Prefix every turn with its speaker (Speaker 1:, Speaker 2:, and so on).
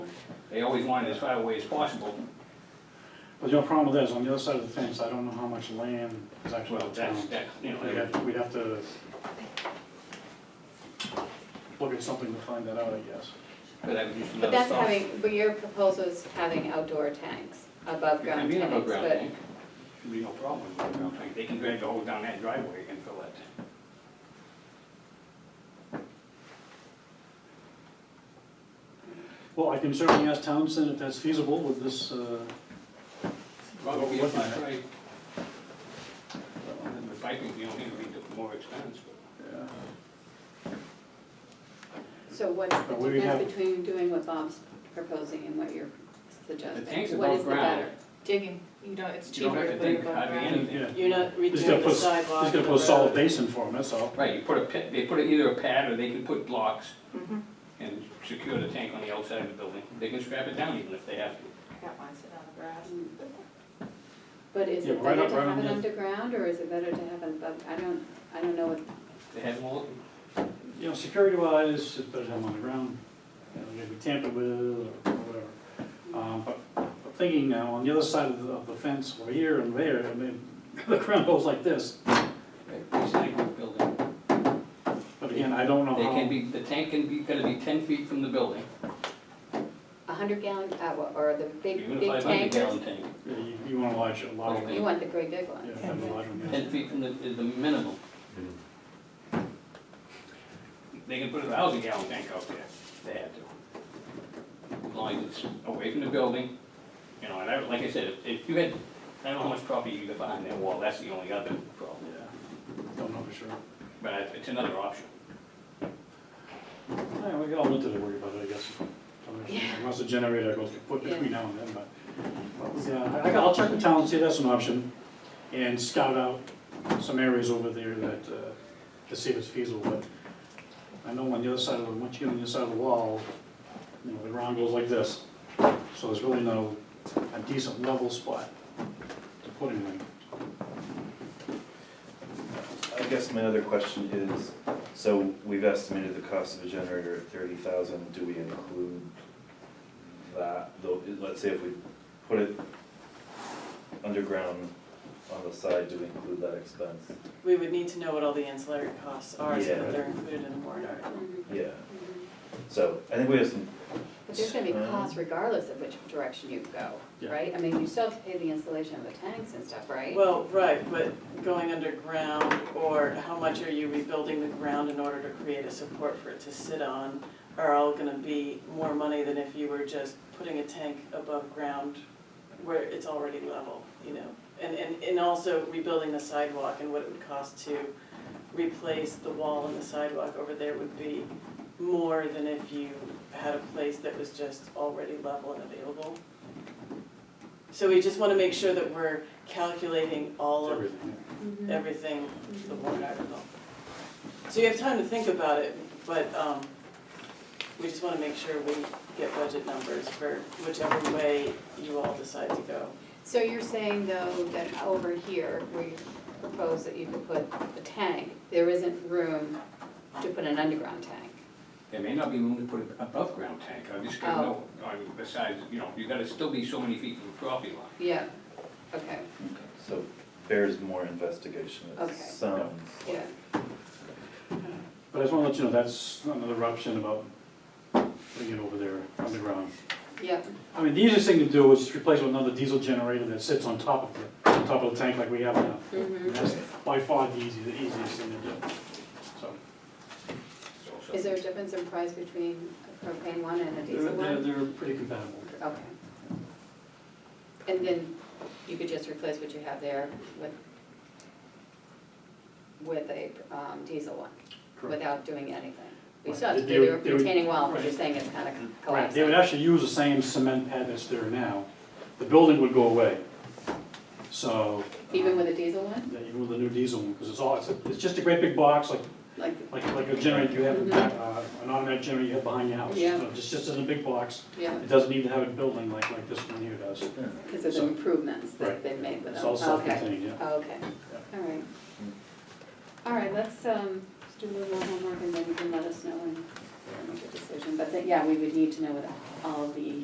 Speaker 1: They always wanted as far away as possible.
Speaker 2: But your problem is, on the other side of the fence, I don't know how much land is actually
Speaker 1: Well,
Speaker 2: town.
Speaker 1: that's, that, you
Speaker 2: We'd
Speaker 1: know,
Speaker 2: have- we'd have to look at something to find that out, I guess.
Speaker 1: but I would just
Speaker 3: But
Speaker 1: another
Speaker 3: that's
Speaker 1: thought.
Speaker 3: having, but your proposal is having outdoor tanks, above
Speaker 1: It can
Speaker 3: ground
Speaker 1: be an
Speaker 3: tanks,
Speaker 1: above-ground
Speaker 3: but,
Speaker 1: tank. Should be no problem with above-ground tank. They can drag the hole down that driveway and fill that.
Speaker 2: Well, I can certainly ask Townsend if that's feasible with this, uh,
Speaker 1: Probably
Speaker 2: What-
Speaker 1: if
Speaker 2: what-
Speaker 1: I tried. And The piping, you know, it'd be more expense, but
Speaker 2: yeah.
Speaker 3: so what's the
Speaker 2: But we have-
Speaker 3: difference between doing what Bob's proposing and what you're suggesting?
Speaker 1: tanks
Speaker 3: What
Speaker 1: above
Speaker 3: is the
Speaker 1: ground.
Speaker 3: better?
Speaker 4: digging, you know, it's
Speaker 1: you don't
Speaker 4: cheaper
Speaker 1: have
Speaker 4: to
Speaker 1: to
Speaker 4: put it
Speaker 1: dig
Speaker 4: above
Speaker 1: hardly
Speaker 4: ground.
Speaker 1: anything.
Speaker 5: You're not
Speaker 2: He's gotta
Speaker 5: redoing
Speaker 2: put
Speaker 5: the
Speaker 2: s-
Speaker 5: sidewalk.
Speaker 2: He's gonna
Speaker 5: the
Speaker 2: put a solid
Speaker 5: road.
Speaker 2: basin for him, that's all.
Speaker 1: Right, you put a pit, they put either a pad or they can put blocks
Speaker 4: Mm-hmm.
Speaker 1: and secure the tank on the outside of the building. They can strap it down even if they have to.
Speaker 4: Got mine sitting on the grass.
Speaker 3: But is
Speaker 2: Yeah,
Speaker 3: it
Speaker 2: but right
Speaker 3: better
Speaker 2: up-
Speaker 3: to
Speaker 2: right
Speaker 3: have
Speaker 2: on
Speaker 3: it
Speaker 2: the-
Speaker 3: underground, or is it better to have it above, I don't, I don't know what,
Speaker 1: They have more,
Speaker 2: You know, security wise, it's better to have them on the ground, you know, they can be tampered with or whatever. Um, but I'm thinking now, on the other side of the, of the fence, over here and there, I mean, the ground goes like this.
Speaker 1: recycling building.
Speaker 2: But again, I don't know
Speaker 1: They
Speaker 2: how.
Speaker 1: can be, the tank can be, gotta be ten feet from the building,
Speaker 3: a hundred gallon, uh, what- or the big,
Speaker 1: even a
Speaker 3: big
Speaker 1: five hundred
Speaker 3: tankers?
Speaker 1: gallon tank.
Speaker 2: Yeah, You, you want a large, a large one.
Speaker 3: You want the great big
Speaker 2: Yeah,
Speaker 3: ones.
Speaker 2: have a large one, yeah.
Speaker 1: Ten feet from the, is the minimum. They can put a thousand gallon tank out there, if they have to. As long as it's away from the building, you know, and I, like I said, if- if you had, I don't know how much property you got behind that wall, that's the only other problem.
Speaker 2: Yeah, Don't know for sure.
Speaker 1: But it's- it's another option.
Speaker 2: Yeah, we got all winter to worry about, I guess. Unless the generator goes kaput between now and then, but. but, Yeah, I- I, I'll check the town, see if that's an option, and scout out some areas over there that, uh, to see if it's feasible, but I know on the other side of the, once you get on the other side of the wall, you know, the ground goes like this, so there's really no, a decent level spot to put anything.
Speaker 6: I guess my other question is, so we've estimated the cost of a generator at thirty thousand, do we include that, though, it- let's say if we put it underground on the side, do we include that expense?
Speaker 5: We would need to know what all the ancillary costs are so
Speaker 6: Yeah.
Speaker 5: that they're included in the warrant article.
Speaker 3: Mhm,
Speaker 6: Yeah,
Speaker 3: mhm.
Speaker 6: so I think we have some,
Speaker 3: But there's gonna be
Speaker 6: Um,
Speaker 3: costs regardless of which direction you go,
Speaker 2: Yeah.
Speaker 3: right? I mean, you still have to pay the installation of the tanks and stuff, right?
Speaker 5: Well, right, but going underground or how much are you rebuilding the ground in order to create a support for it to sit on are all gonna be more money than if you were just putting a tank above ground where it's already level, you know? And, and, and also rebuilding the sidewalk and what it would cost to replace the wall and the sidewalk over there would be more than if you had a place that was just already level and available. So we just wanna make sure that we're calculating all of
Speaker 2: Everything.
Speaker 3: Mhm.
Speaker 5: Mm-hmm. everything, the warrant article. So you have time to think about it, but um, we just want to make sure we get budget numbers for whichever way you all decide to go.
Speaker 3: So you're saying though that over here, where you propose that you could put the tank, there isn't room to put an underground tank?
Speaker 1: There may not be room to put an above-ground tank, I just gotta know, uh, besides, you know, you gotta still be so many feet from the property line.
Speaker 3: Yeah, okay,
Speaker 6: so bears more investigation,
Speaker 3: Okay.
Speaker 6: it sounds.
Speaker 3: yeah.
Speaker 2: But I just wanna let you know, that's another option about putting it over there underground.
Speaker 3: Yep,
Speaker 2: I mean, the easiest thing to do is just replace it with another diesel generator that sits on top of it, on top of the tank like we have now.
Speaker 3: Mhm.
Speaker 2: That's by far the easiest, the easiest thing to do, so.
Speaker 1: So- so-
Speaker 3: is there a difference in price between a propane one and a
Speaker 2: They're,
Speaker 3: diesel
Speaker 2: they're,
Speaker 3: one?
Speaker 2: they're pretty compatible.
Speaker 3: Okay. And then you could just replace what you have there with, with a um, diesel one, without doing anything? We still have to
Speaker 2: Right, they
Speaker 3: do
Speaker 2: would-
Speaker 3: the
Speaker 2: they would-
Speaker 3: retaining wall, but you're
Speaker 2: right.
Speaker 3: saying it's kind of
Speaker 2: Right,
Speaker 3: collapsing.
Speaker 2: they would actually use the same cement pad that's there now, the building would go away, so. um,
Speaker 3: Even with a diesel one?
Speaker 2: Yeah, even with the new diesel one, because it's all, it's, a- it's just a great big box, like
Speaker 3: Like,
Speaker 2: like, like a generator you have, in back, uh, an automatic generator you have behind your house.
Speaker 3: Yeah.
Speaker 2: So It's just in a big box,
Speaker 3: yeah,
Speaker 2: it doesn't need to have a building like, like this one here does.
Speaker 3: because of the
Speaker 2: So-
Speaker 3: improvements that
Speaker 2: Right.
Speaker 3: they've made with them.
Speaker 2: It's all self-contained, yeah.
Speaker 3: Okay, okay, all right. All right, let's, um, just do a little more homework and then you can let us know and we'll make a decision. But, that- yeah, we would need to know what all the